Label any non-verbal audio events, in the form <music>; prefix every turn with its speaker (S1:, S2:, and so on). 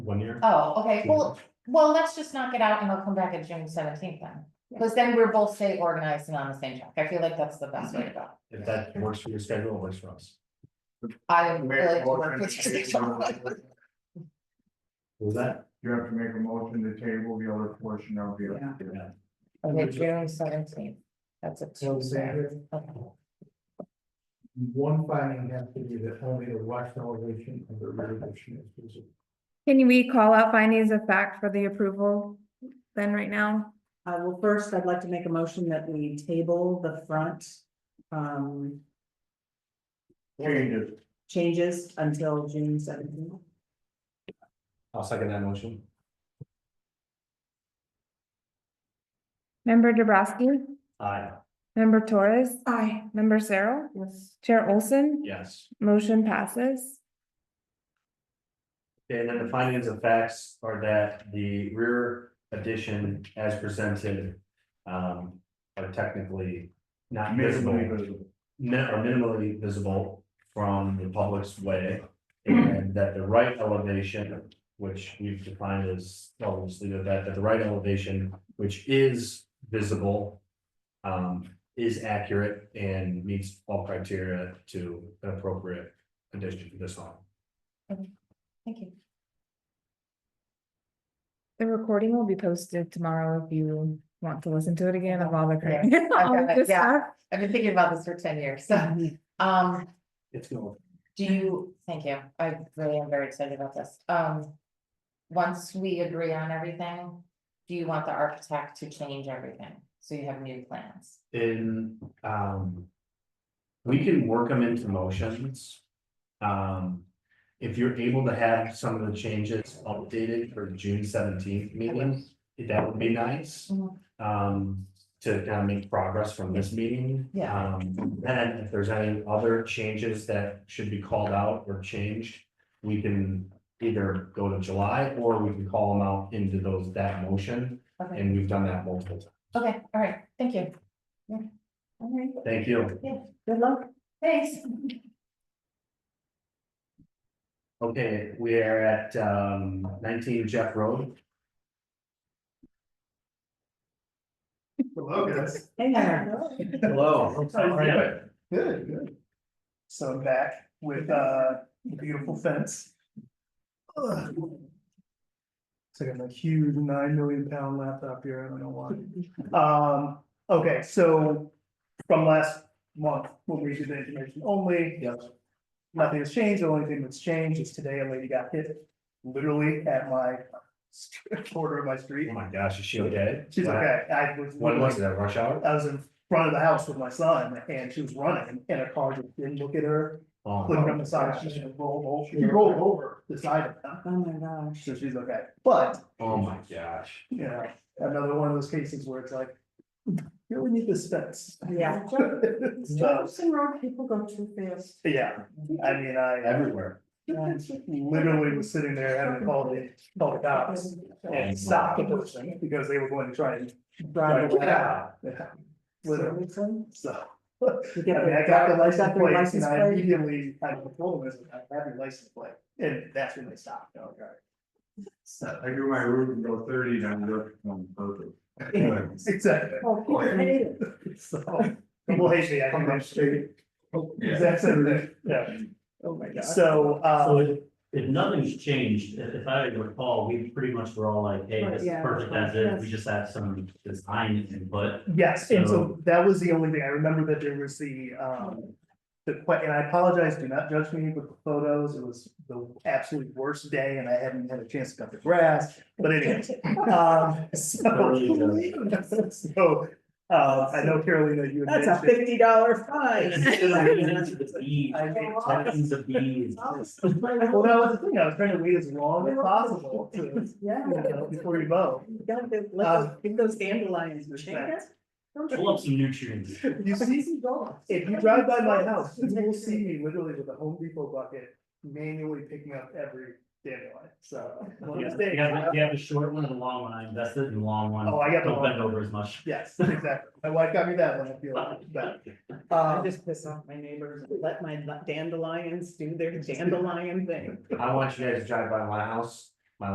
S1: One year?
S2: Oh, okay, well, well, let's just knock it out and I'll come back at June seventeenth then. Cause then we're both stay organized and on the same track. I feel like that's the best way to go.
S1: If that works for your schedule, it works for us.
S2: I would
S3: Make
S2: really
S3: a
S2: like to work
S3: motion
S2: with
S3: to
S2: you.
S3: table-
S1: What Was that?
S3: You have to make a motion to table the other portion of the.
S1: Yeah.
S2: Okay, June seventeenth. That's a Tuesday. Okay.
S3: One finding has to be that only the west elevation of the rear addition is
S4: Can we call out findings of fact for the approval then right now?
S5: Uh, well, first, I'd like to make a motion that we table the front, um,
S3: changes.
S5: changes until June seventeenth.
S1: I'll second that motion.
S4: Member Dubrasky,
S1: Aye.
S4: member Torres. Aye. Member Cyril,
S5: Yes.
S4: Chair Olson,
S1: Yes.
S4: motion passes.
S1: And then the findings of facts are that the rear addition as presented. Um, are technically not
S3: Minimally
S1: visible,
S3: visible.
S1: mi- are minimally visible from the public's way. And that the right elevation, which we've defined as, well, just leave it at that, that the right elevation, which is visible. Um, is accurate and meets all criteria to an appropriate addition to this home.
S2: Thank you.
S4: The recording will be posted tomorrow if you want to listen to it again of all the. cra-
S2: I've
S4: <laughs> all
S2: got
S4: of
S2: it,
S4: this
S2: yeah.
S4: stuff.
S2: I've been thinking about this for ten years, so, um,
S1: It's going.
S2: do you, thank you, I really am very excited about this, um. Once we agree on everything, do you want the architect to change everything, so you have new plans?
S1: in, um. We can work them into motions. Um, if you're able to have some of the changes updated for the June seventeenth meeting, that would be nice.
S2: Mhm.
S1: Um, to kind of make progress from this meeting.
S2: Yeah.
S1: Um, then if there's any other changes that should be called out or changed, we can either go to July or we can call them out into those, that motion,
S2: Okay,
S1: and we've done that multiple times.
S2: okay, all right, thank you. Yeah. All right,
S1: Thank you.
S2: good luck. Thanks.
S1: Okay, we are at um nineteen Jeff Road.
S3: Hello, guys.
S5: Hey there.
S1: Hello.
S3: Good,
S6: Good, good. So I'm back with uh, a beautiful fence. Ugh. So I got my huge nine million pound laptop here, I don't know why. Um, okay, so from last month, when we did the information only.
S3: Yep.
S6: Nothing has changed, the only thing that's changed is today a lady got hit literally at my <laughs> corner of my street.
S1: Oh my gosh, is she okay?
S6: She's okay, I was.
S1: When was that rush hour?
S6: I was in front of the house with my son and she was running and a car just didn't look at her
S1: Oh,
S6: flipped on the side, she should roll over, she
S3: Yeah.
S6: rolled over the side of them,
S5: Oh, my gosh.
S6: so she's okay. But,
S1: oh my gosh.
S6: you know, another one of those cases where it's like, you really need this fence.
S5: <laughs> Yeah.
S6: So,
S5: Road, people go too fast.
S6: yeah, I mean, I
S1: Everywhere.
S5: <laughs>
S6: literally was sitting there having to call the, call the cops and stop the person because they were going to try and.
S5: Drive
S6: Get
S5: away.
S6: out. Yeah, Literally,
S5: Seriously?
S6: so,
S5: You
S6: I
S5: get
S6: mean,
S5: their
S6: I got
S5: driver-
S6: the
S5: you
S6: license
S5: got their
S6: plate and
S5: license
S6: I
S5: plate?
S6: immediately, I told them, I have your license plate, and that's when they stopped, oh, God. So,
S3: I do my route and go thirty down there on purpose.
S6: exactly.
S5: Oh, cool. I need it.
S6: So, <laughs> well, actually, I think that's true. Exact same thing, yeah,
S5: Oh, my gosh.
S6: so,
S7: So
S6: uh,
S7: if, if nothing's changed, if, if I recall, we pretty much were all like, hey, this is
S5: Yeah.
S7: perfect as is, we just have some design
S6: <laughs>
S7: input.
S6: yes, and so that was the only thing, I remember that there was the, um. The que- and I apologize, do not judge me with the photos, it was the absolute worst day and I hadn't had a chance to cut the grass, but anyways,
S5: <laughs>
S6: um,
S7: Really
S6: so. <laughs> So, uh, I know Carolina, you had
S5: That's a
S6: mentioned,
S5: fifty dollar fine. <laughs>
S7: Tons of bees.
S6: well, that was the thing, I was trying to wait as long as possible to, you
S5: Yeah.
S6: know, before you mow.
S5: Don't do-
S6: Uh,
S5: let those- those dandelions.
S6: respect.
S7: Pull up some nutrients.
S6: You see, If you drive by my house, you will see me literally with a Home Depot bucket manually picking up every dandelion, so. one
S7: You
S6: of
S7: have,
S6: these days,
S7: you have a short one and a long one, I invested in the long one.
S6: Oh, I got the
S7: Don't
S6: long
S7: bend over as much.
S6: Yes, exactly. My wife got me that one, I feel bad.
S5: I
S6: Um,
S5: just piss off my neighbors, and let my dandelions do their dandelion thing.
S1: I want you guys to drive by my house